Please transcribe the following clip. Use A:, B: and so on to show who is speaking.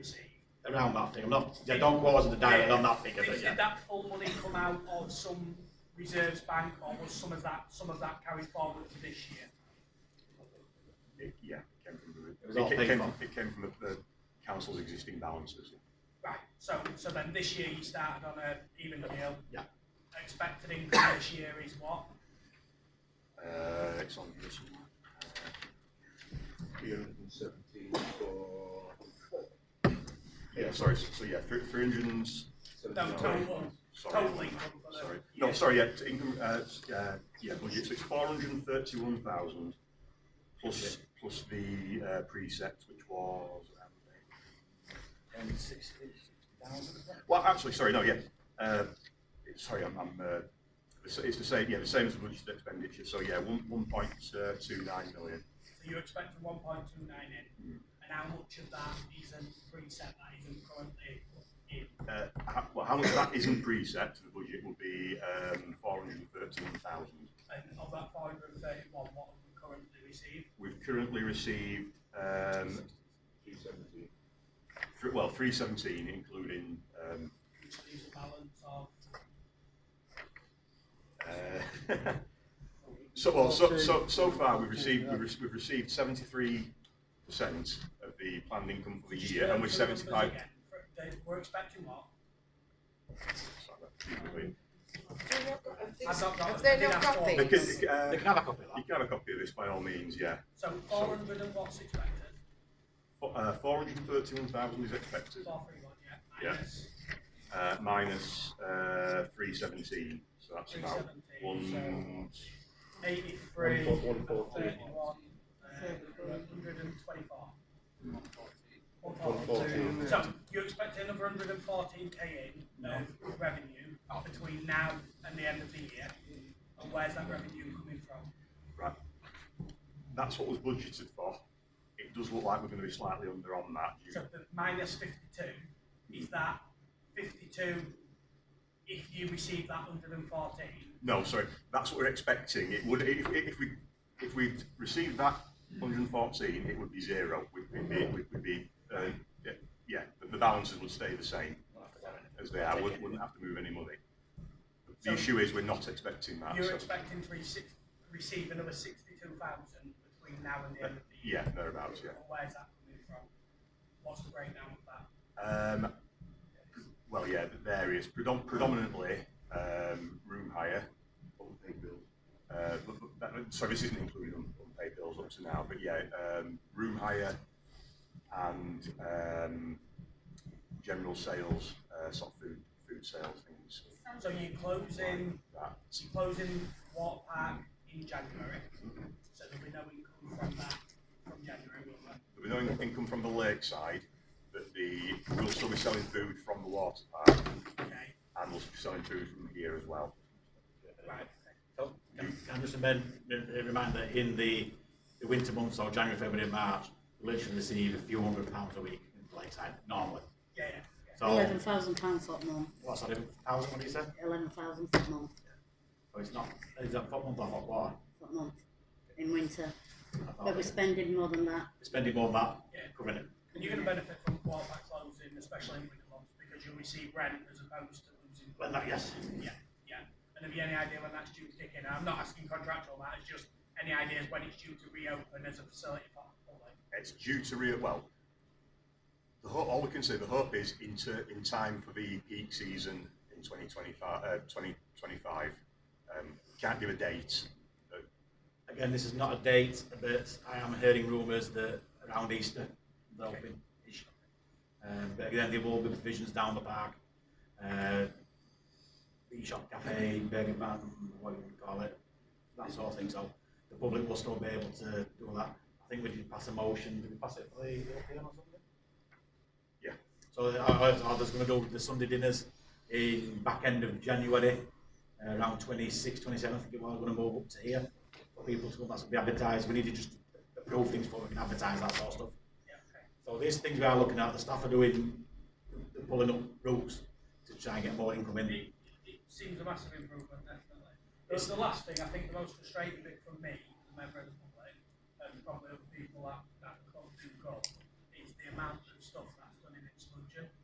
A: around that thing. I'm not, yeah, don't go as the direct, I'm not thinking of it
B: Did
A: yet.
B: that full money come out of some reserves bank or was some of that, some of that carried forward to this year?
C: It, yeah, it came from
A: was
C: the,
A: all
C: it
A: paid
C: came,
A: for.
C: from- it came from the, the council's existing balances.
B: Right, so, so then this year you started on a even keel.
A: Yeah.
B: Expected income this year is what?
C: Uh, it's on here somewhere.
D: three hundred and seventeen for
C: Yeah, sorry, so so yeah, three, three hundred and, s-
B: No,
D: seventeen.
B: total,
C: sorry.
B: total income for the.
C: Sorry,
B: year.
C: no, sorry, yeah, it's income, uh, s- uh, yeah, budget, so it's four hundred and thirty-one thousand plus, plus the, uh, precept, which was, um,
E: And sixty, sixty thousand?
C: Well, actually, sorry, no, yeah. Uh, it's- sorry, I'm, I'm uh, it's, it's the same, yeah, the same as the budget expenditure. So yeah, one one point uh, two nine million.
B: So you're expecting one point two nine in, and how much of that isn't preset, that isn't currently in?
C: Uh, how, well, how much of that isn't preset to the budget would be um, four hundred thirteen thousand.
B: And of that five hundred and thirty-one, what have we currently received?
C: We've currently received um,
D: Three seventeen.
C: th- well three seventeen, including um,
B: Which leaves a balance of,
C: Uh, So, well, so, so, so far, we've received, we've rec- we've received seventy-three percent of the planned income for the
B: Just
C: year, and we're
B: go through the numbers
C: seventy-five.
B: again. They- We're expecting what? I've not got it.
F: Have they
B: I did
F: not
B: ask
F: got
B: for it.
F: these?
C: They can, uh,
E: They can have a copy of
C: you
E: that.
C: can have a copy of this by all means, yeah.
B: So four hundred and what's expected,
C: uh, Four hundred and thirty-one thousand is expected,
B: four three one, yeah,
C: Yeah.
B: minus
C: uh, minus, uh, three seventeen, so that's
B: three
C: about
B: seventeen,
C: one,
B: so eighty-three and
D: One four- one four three.
B: thirty-one, uh, hundred and twenty-four. One
D: One fourteen.
B: So you expect another hundred and fourteen K in of revenue between now and the end of the year, and where's that revenue coming from?
C: right. That's what was budgeted for. It does look like we're gonna be slightly under on that. due-
B: So the minus fifty-two, is that fifty-two if you receive that hundred and fourteen?
C: No, sorry, that's what we're expecting. It would, if, if we, if we received that hundred and fourteen, it would be zero. We'd we'd be, we'd we'd be, uh, yeah, yeah, the- the balances would stay the same as they are. Wouldn't, wouldn't have to move any money. The issue is we're not expecting that.
B: You're
C: so-
B: expecting to receive, receive another sixty-two thousand between now and the end of the year?
C: uh, Yeah, thereabouts, yeah.
B: And Where's that coming from? What's the breakdown of that?
C: Um, well, yeah, the various, predom- predominantly, um, room hire. Unpaid bills. Uh, but, but that, sorry, this isn't including un- unpaid bills up to now, but yeah, um, room hire and, um, general sales, uh, sort of food, food sales things.
B: So you're closing,
C: That,
B: so you're closing water park in January, so there'll be no income from that from January, will there?
C: there'll be no in- income from the lakeside, but the, we'll still be selling food from the water park
B: Okay,
C: and we'll be selling food from here as well.
B: right,
A: Can can I just amend, a a reminder, in the, the winter months, so January, February, and March, we literally receive a few hundred pounds a week in Lakeside, normally.
B: yeah, yeah, yeah.
A: So,
G: Eleven thousand pounds that month.
A: what's that, thousand, what did you say?
G: Eleven thousand that month.
A: So it's not, is that what month or what quarter?
G: That month. In winter.
A: I thought
G: But we're
A: we're
G: spending more than that.
A: Spending more than that,
B: Yeah.
A: covering it.
B: And you're gonna benefit from water park closing, especially in winter months, because you'll receive rent as opposed to losing.
A: Well, that, yes.
B: Yeah, yeah. And have you any idea when that's due to kick in? I'm not asking contractual, that it's just any ideas when it's due to reopen as a facility for the public?
C: it's due to re well. The ho- all we can say the hope is into in time for the peak season in 2025. Uh, 2025. Um, can't give a date. but
A: Again, this is not a date, but I am hearing rumours that around Easter, there'll be issue. Um, but again, there will be provisions down the park. Uh, the shop cafe, burger van, what you would call it, that sort of thing. So the public will still be able to do that. I think we did pass a motion. Did we pass it for the European or something?
C: Yeah.
A: So I, I, I was going to do the Sunday dinners in back end of January, uh, around 26th, 27th. I think it was going to move up to here for people to come. That's be advertised. We need to just approve things before we can advertise that sort of stuff.
B: Yeah, okay.
A: So these things we are looking at, the staff are doing, they're pulling up routes to try and get more income in.
B: It, it seems a massive improvement, definitely. But the last thing, I think the most frustrating bit from me, the member of the public, and probably other people that, that come to go, is the amount of stuff